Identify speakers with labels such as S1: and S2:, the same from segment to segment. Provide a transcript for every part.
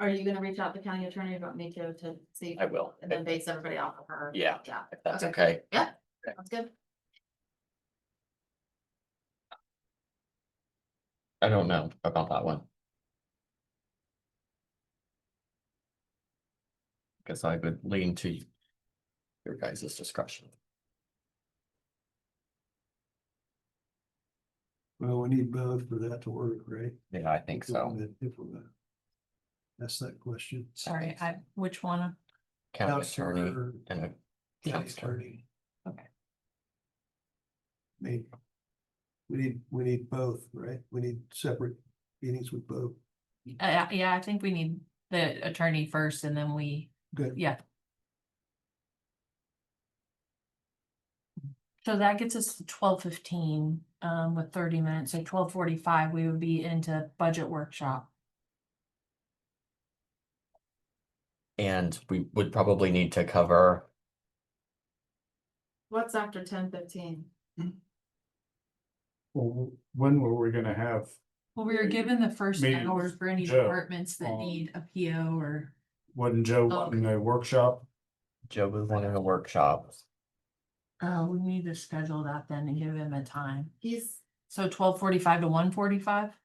S1: Are you gonna reach out to county attorney about Miko to see?
S2: I will.
S1: And then base everybody off of her?
S2: Yeah.
S1: Yeah,
S2: If that's
S1: Okay.
S2: okay.
S1: that's good.
S2: I don't know about that one. Guess I would lean to your guys' discretion.
S3: Well, we need both for that to work, right?
S2: Yeah, I think so.
S3: If we're gonna Ask that question.
S4: Sorry, I, which one? Uh,
S2: County attorney
S3: Counselor,
S2: and a
S3: county
S2: counselor.
S3: attorney.
S4: Okay.
S3: Need, we need, we need both, right? We need separate meetings with both.
S4: Uh, yeah, I think we need the attorney first and then we,
S3: Good.
S4: yeah. So that gets us to twelve fifteen, um, with thirty minutes, so twelve forty-five, we would be into budget workshop.
S2: And we would probably need to cover,
S1: What's after ten fifteen?
S5: Well, when were we gonna have,
S4: Well, we were given the first
S5: Maybe
S4: hours for any
S5: Joe,
S4: departments that
S5: um,
S4: need a PO or,
S5: wasn't Joe
S4: Oh,
S5: wanting a workshop?
S2: Joe was wanting a workshop.
S4: uh, we need to schedule that then and give him a time.
S1: He's,
S4: So twelve forty-five to one forty-five?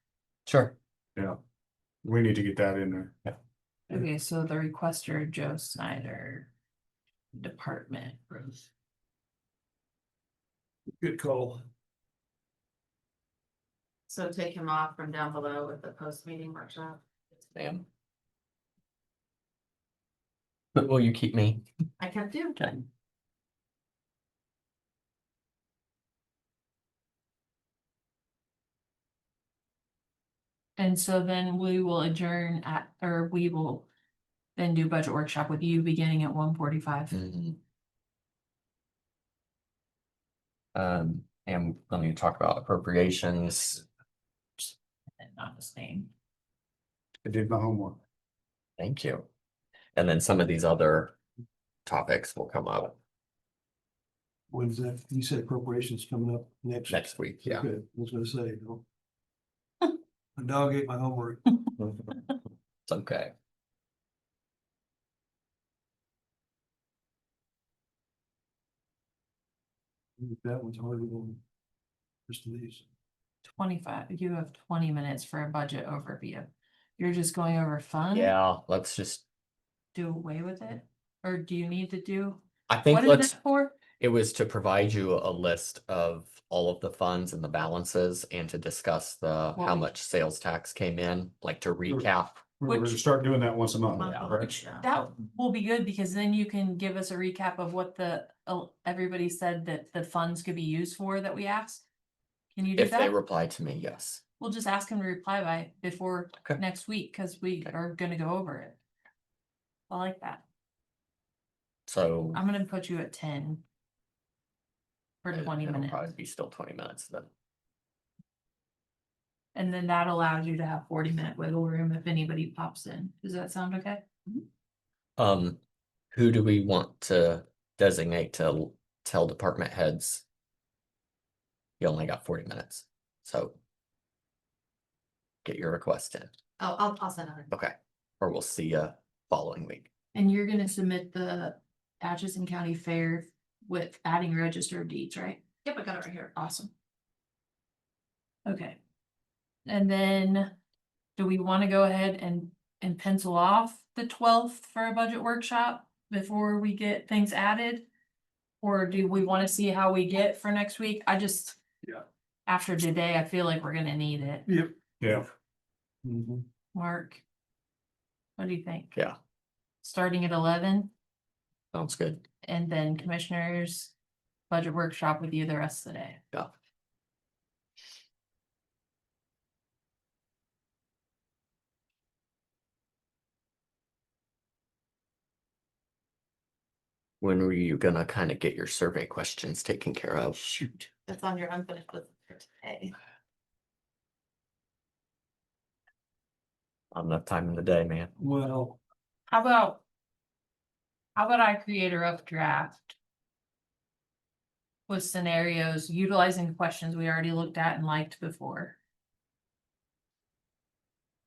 S2: Sure.
S5: Yeah. We need to get that in there.
S3: Yeah.
S4: Okay, so the requester Joe Snyder. Department Rose.
S3: Good call.
S1: so take him off from down below with the post meeting workshop.
S2: Ma'am. But will you keep me?
S1: I kept you.
S2: Okay.
S4: And so then we will adjourn at, or we will. Then do budget workshop with you beginning at one forty-five.
S2: Mhm. Um, and when you talk about appropriations,
S4: Not his name.
S5: I did my homework.
S2: thank you. And then some of these other topics will come up
S3: When's that? You said appropriations coming up next.
S2: next week, yeah.
S3: Good. I was gonna say, you know. My dog ate my homework.
S2: It's okay.
S3: That one's harder than just these.
S4: Twenty-five, you have twenty minutes for a budget overview. You're just going over fun?
S2: Yeah, let's just,
S4: Do away with it? Or do you need to do?
S2: I think
S4: What is
S2: let's,
S4: it for?
S2: it was to provide you a list of all of the funds and the balances and to discuss the,
S4: What
S2: how
S4: we-
S2: much sales tax came in, like to recap.
S5: We're gonna
S4: Which-
S5: start doing that once a month,
S1: Month,
S5: right?
S1: which,
S4: That will be good because then you can give us a recap of what the, uh, everybody said that the funds could be used for that we asked. Can you do
S2: If they
S4: that?
S2: reply to me, yes.
S4: We'll just ask him to reply by before
S2: Okay.
S4: next week, cause we
S2: Okay.
S4: are gonna go over it. I like that.
S2: So.
S4: I'm gonna put you at ten. For
S2: it-
S4: twenty
S2: it'll
S4: minutes,
S2: Probably be still twenty minutes then.
S4: and then that allows you to have forty minute wiggle room if anybody pops in. Does that sound okay?
S2: Um, who do we want to designate to l- tell department heads? You only got forty minutes, so. Get your request in,
S1: Oh, I'll, I'll send her.
S2: okay, or we'll see you following week.
S4: And you're gonna submit the Atchison County Fair with adding register of deeds, right?
S1: Yep, I got it right here.
S4: Awesome. Okay. And then, do we wanna go ahead and, and pencil off the twelfth for a budget workshop before we get things added? Or do we wanna see how we get for next week? I just.
S3: Yeah.
S4: After today, I feel like we're gonna need it.
S3: Yep.
S5: Yeah,
S2: Mm-hmm.
S3: Mhm.
S4: Mark? What do you think?
S2: Yeah.
S4: Starting at eleven?
S2: Sounds good.
S4: And then commissioners, budget workshop with you the rest of the day.
S2: Yeah. When were you gonna kind of get your survey questions taken care of? Shoot.
S1: That's on your unfinished list for today.
S2: Not enough time in the day, man.
S3: Well,
S4: How about? How about I create a rough draft? With scenarios utilizing questions we already looked at and liked before.